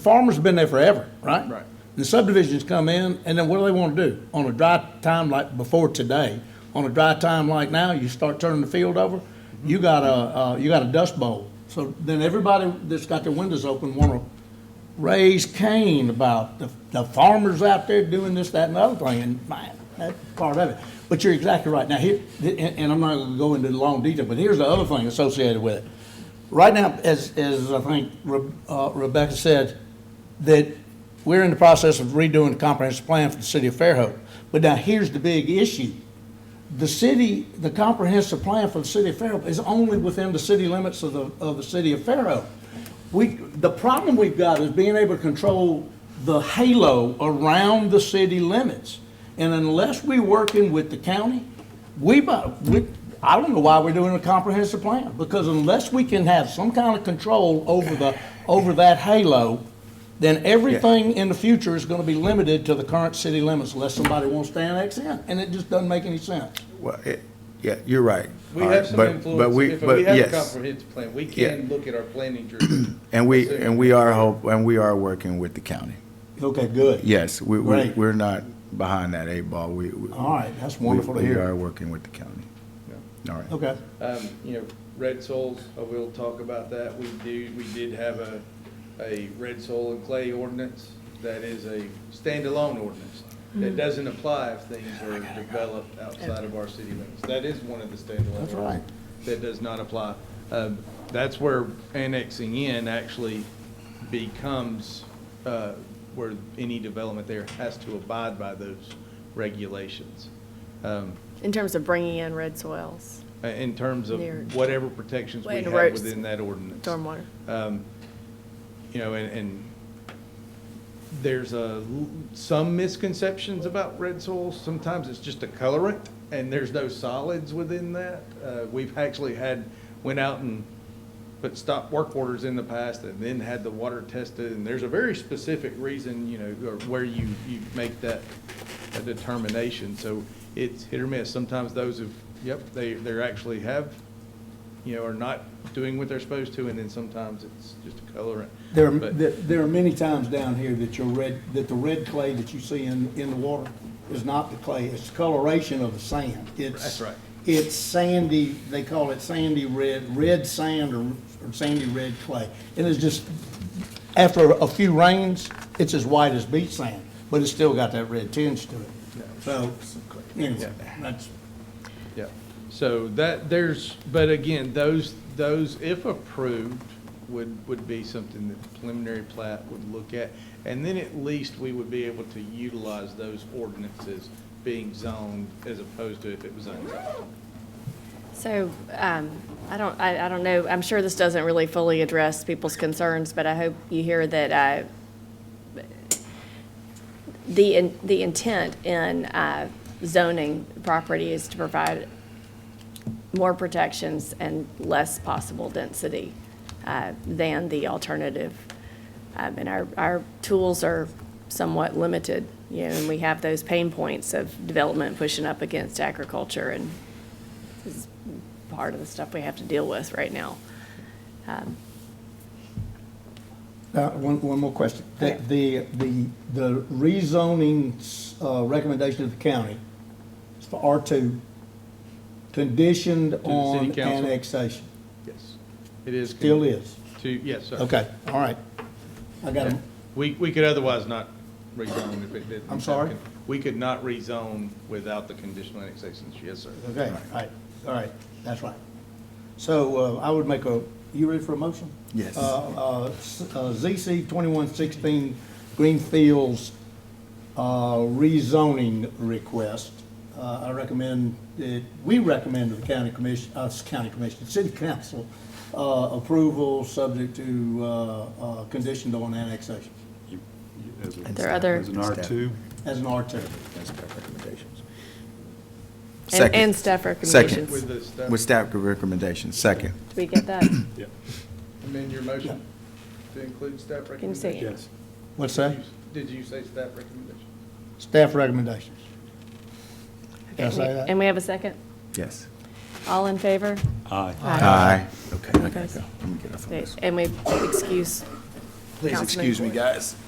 farmers have been there forever, right? Right. The subdivisions come in, and then what do they want to do? On a dry time like before today, on a dry time like now, you start turning the field over, you got a, uh, you got a dust bowl. So then everybody that's got their windows open want to raise Cain about the, the farmers out there doing this, that, and the other thing, and man, that's part of it. But you're exactly right. Now, here, and, and I'm not gonna go into long detail, but here's the other thing associated with it. Right now, as, as I think Re- uh, Rebecca said, that we're in the process of redoing the comprehensive plan for the city of Fairhope. But now, here's the big issue. The city, the comprehensive plan for the city of Fairhope is only within the city limits of the, of the city of Fairhope. We, the problem we've got is being able to control the halo around the city limits. And unless we working with the county, we, bu- we, I don't know why we're doing a comprehensive plan, because unless we can have some kind of control over the, over that halo, then everything in the future is gonna be limited to the current city limits unless somebody wants to annex in, and it just doesn't make any sense. Well, it, yeah, you're right. We All right, have some but- But influence, we, if we but have a yes, comprehensive plan, we Yeah. can look at our planning journey. and we, and we are hope, and we are working with the county. Okay, good. Yes, we, we, Right. we're not behind that eight ball. We, we. All right, that's we- wonderful to We hear. are working with the county. All right. Okay. Um, you know, red soils, I will talk about that. We do, we did have a, a red soil and clay ordinance that is a standalone ordinance. Mm-hmm. That doesn't apply if things are developed outside of our city limits. That is one of the standalone. That's ordinances right. That does not apply. Um, that's where annexing in actually becomes, uh, where any development there has to abide by those regulations. Um, In terms of bringing in red soils, uh, in terms of Near- whatever protections we Wait, have roads. within that ordinance. stormwater. Um, You know, and, and there's a, l- some misconceptions about red soil. Sometimes it's just a colorant and there's no solids within that. Uh, We've actually had, went out and put stop work orders in the past and then had the water tested. And there's a very specific reason, you know, or where you, you make that a determination. So it's hit or miss. Sometimes those have, yep, they, they're actually have, you know, are not doing what they're supposed to. And then sometimes it's just a colorant. There, are- But- there there are many times down here that your red, that the red clay that you see in, in the water is not the clay, it's the coloration of the sand. It's- That's right. It's sandy, they call it sandy red, red sand or, or sandy red clay. And it's just, after a few rains, it's as white as beach sand, but it's still got that red tinge to it. So, anyway, that's, Yeah, so that, there's, but again, those, those, if approved, would, would be something that the preliminary plat would look at. And then at least we would be able to utilize those ordinances being zoned as opposed to if it was unzoned. So, um, I don't, I, I don't know, I'm sure this doesn't really fully address people's concerns, but I hope you hear that, uh, the, in- the intent in, uh, zoning property is to provide more protections and less possible density, uh, than the alternative. Um, and our, our tools are somewhat limited, you know, and we have those pain points of development pushing up against agriculture and part of the stuff we have to deal with right now. Uh, One, one more question. The, the, the the rezoning uh, recommendation of the county is for R2, conditioned the on city council? annexation. Yes, it is. Still is. To, yes, sir. Okay, all right. I got it. We, we could otherwise not rezone if it didn't. I'm sorry? We could not rezone without the conditional annexations, yes, sir. Okay, all right, all right, that's right. So uh, I would make a, you ready for a motion? Yes. Uh, uh, s- uh, ZC 2116 Greenfields uh, rezoning request. Uh, I recommend, that- we recommend to the county commission, us county commission, city council, uh, approval subject to uh, uh, conditioned on annexation Are there other, As an R2? as an R2. That's staff recommendations. and, Second. and staff Second. recommendations? With Did the staff, With staff recommendations, second. we get that? amend your motion to include staff Can you recommendations. say? Yes. What's that? Did you say staff recommendation? Staff recommendations. Can I Okay, say that? And we have a second? Yes. All in favor? Aye. Aye. Okay, I gotta Guys. go. Let me get off of Okay, this. And we excuse Please Councilman excuse me, Ford. guys.